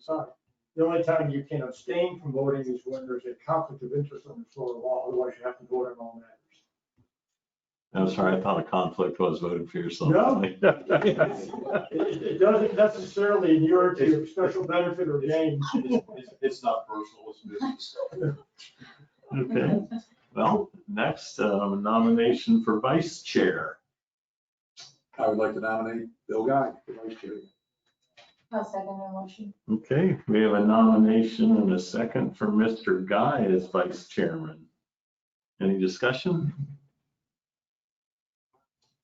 side. The only time you can abstain from voting is when there's a conflict of interest on the floor of law, otherwise you have to vote on all matters. I'm sorry, I thought a conflict was voting for yourself. No. It, it doesn't necessarily inure to your special benefit or gain. It's- It's not personal, it's business. Okay, well, next uh, nomination for vice chair. I would like to nominate Bill Guy for vice chair. I'll second the motion. Okay, we have a nomination and a second for Mr. Guy as vice chairman. Any discussion?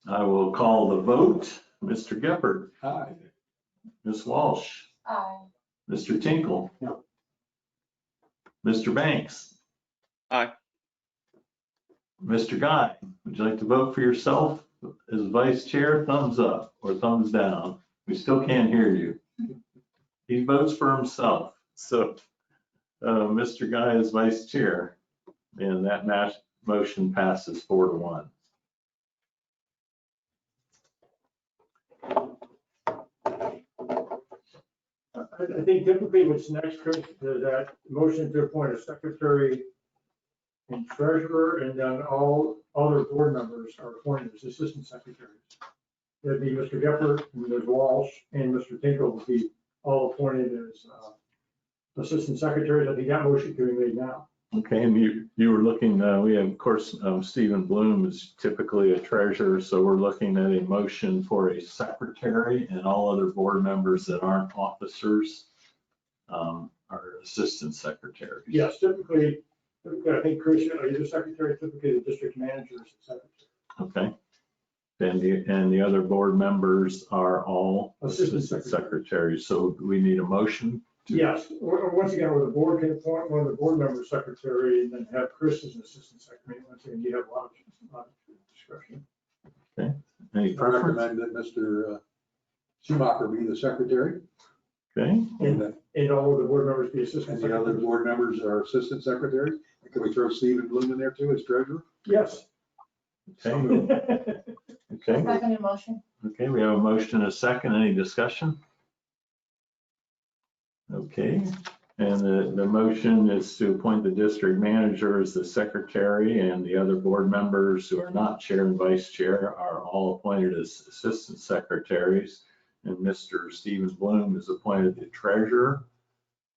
I will call the vote. Mr. Geppert, Hi. Ms. Walsh, Aye. Mr. Tinkle. No. Mr. Banks. Aye. Mr. Guy, would you like to vote for yourself as vice chair? Thumbs up or thumbs down? We still can't hear you. He votes for himself. So, uh, Mr. Guy is vice chair. And that match, motion passes four to one. I, I think typically what's next, Chris, is that motion to appoint a secretary and treasurer, and then all other board members are appointed as assistant secretaries. That'd be Mr. Gepper, Ms. Walsh, and Mr. Tinkle would be all appointed as uh, assistant secretaries. I think that motion can be made now. Okay, and you, you were looking, uh, we have, of course, um, Stephen Bloom is typically a treasurer, so we're looking at a motion for a secretary and all other board members that aren't officers um, are assistant secretaries. Yes, typically, typically, I think, Chris, you're the secretary, typically the district manager is the secretary. Okay. And the, and the other board members are all Assistant assistant secretary. secretaries, so we need a motion. to- Yes, or, or once again, where the board can appoint one of the board members secretary and then have Chris as an assistant secretary. Once again, you have a lot of a lot of discretion. Any I preference? recommend that Mr. Schumacher be the secretary Okay, and that- And all of the board members be assistant and the other secretaries. board members are assistant secretaries. And Can we throw Stephen Bloom in there too as treasurer? Yes. So okay, moved. okay. Second the motion. Okay, we have a motion and a second. Any discussion? Okay, and the, the motion is to appoint the district manager as the secretary and the other board members who are not chair and vice chair are all appointed as assistant secretaries. And Mr. Stephen Bloom is appointed the treasurer.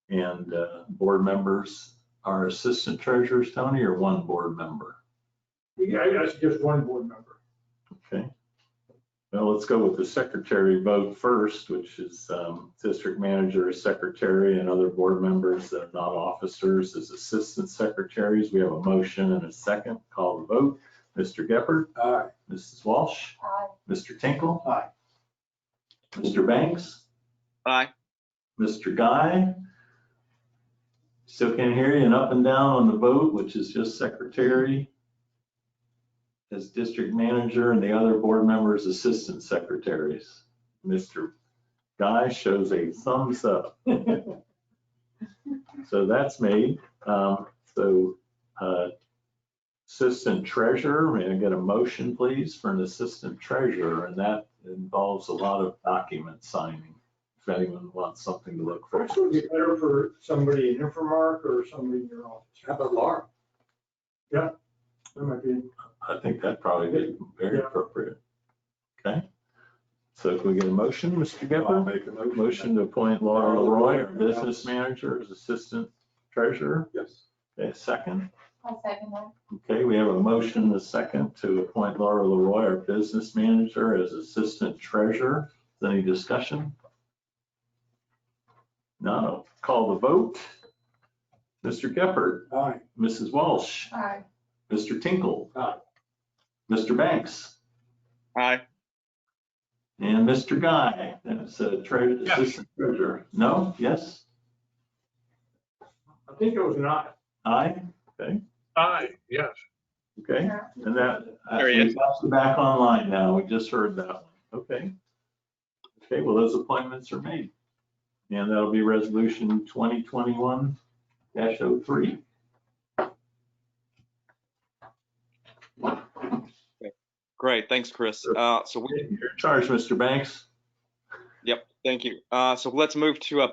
And uh, board members are assistant treasurers, Tony, or one board member? Yeah, I I suggest one board member. Okay. Well, let's go with the secretary vote first, which is um, district manager, secretary, and other board members that are not officers as assistant secretaries. We have a motion and a second. Call the vote. Mr. Gepper, Aye. Mrs. Walsh, Aye. Mr. Tinkle. Aye. Mr. Banks, Aye. Mr. Guy. Still can't hear you, and up and down on the vote, which is just secretary as district manager and the other board members assistant secretaries. Mr. Guy shows a thumbs up. So that's me. Um, So uh, assistant treasurer, may I get a motion, please, for an assistant treasurer? And that involves a lot of document signing, if anyone wants something to look for. Actually, it'd be better for somebody in Infomark or somebody in your office. How about Laura? That might be, I think that'd probably be very Yeah. appropriate. Okay, so can we get a motion, Mr. I'll Gepper? make a motion. Motion to appoint Laura Leroy, our business manager, as assistant treasurer. Yes. Okay, second. I'll second that. Okay, we have a motion, a second, to appoint Laura Leroy, our business manager, as assistant treasurer. Any discussion? No, call the vote. Mr. Gepper, Aye. Mrs. Walsh, Aye. Mr. Tinkle. Aye. Mr. Banks. Aye. And Mr. Guy, that's a treasurer, Yes. assistant treasurer. No, yes, I think it was an aye. aye, Aye, yes. okay. And that, uh, There he we've is. got you back online now. We just heard that one. Okay. Okay, well, those appointments are made. And that'll be resolution 2021 03. Great. Thanks, Chris. Sure. Uh, so we, You're in charge, Mr. Banks. thank you. Uh, so let's move to uh,